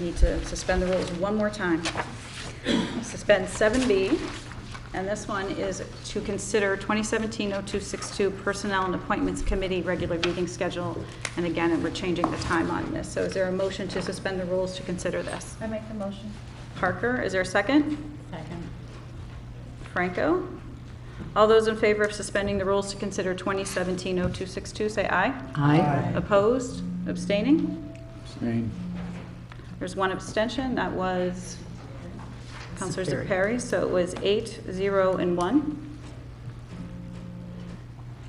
need to suspend the rules one more time. Suspend 7B, and this one is to consider 2017-0262 Personnel and Appointments Committee regular meeting schedule. And again, we're changing the time on this. So is there a motion to suspend the rules to consider this? I make the motion. Parker, is there a second? Second. Franco? All those in favor of suspending the rules to consider 2017-0262, say aye. Aye. Opposed? Abstaining? Abstain. There's one abstention, that was Counselor Perry. Perry, so it was eight, zero, and one.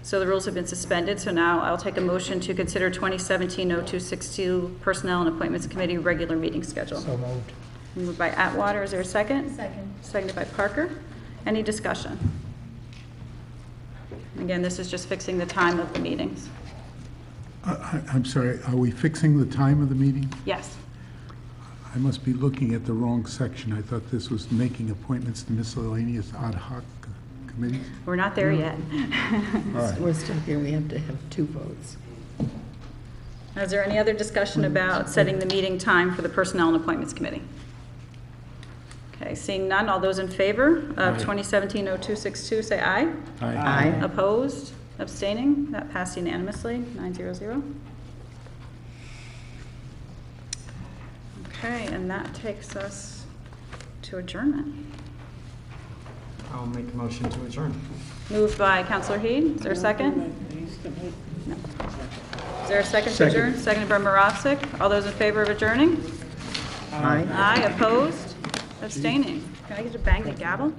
So the rules have been suspended, so now I'll take a motion to consider 2017-0262 Personnel and Appointments Committee regular meeting schedule. So moved. Moved by Atwater, is there a second? Second. Seconded by Parker. Any discussion? Again, this is just fixing the time of the meetings. I- I- I'm sorry, are we fixing the time of the meeting? Yes. I must be looking at the wrong section. I thought this was making appointments to miscellaneous ad hoc committees. We're not Hmm. there yet. We're still here, we have to have two votes. Is there any other discussion about setting the meeting time for the Personnel and Appointments Committee? Okay, seeing none, all those in favor of 2017-0262, say aye. Aye. Opposed, abstaining, that passed unanimously, 900. Okay, and that takes us to adjournment. I'll make a motion to adjourn. Moved by Counselor Heed, is there a second? No. Is there a second to adjourn? Seconded by Marovsek, all those in favor of adjourning? Aye. Aye, opposed, abstaining. Can I get to bang the gavel?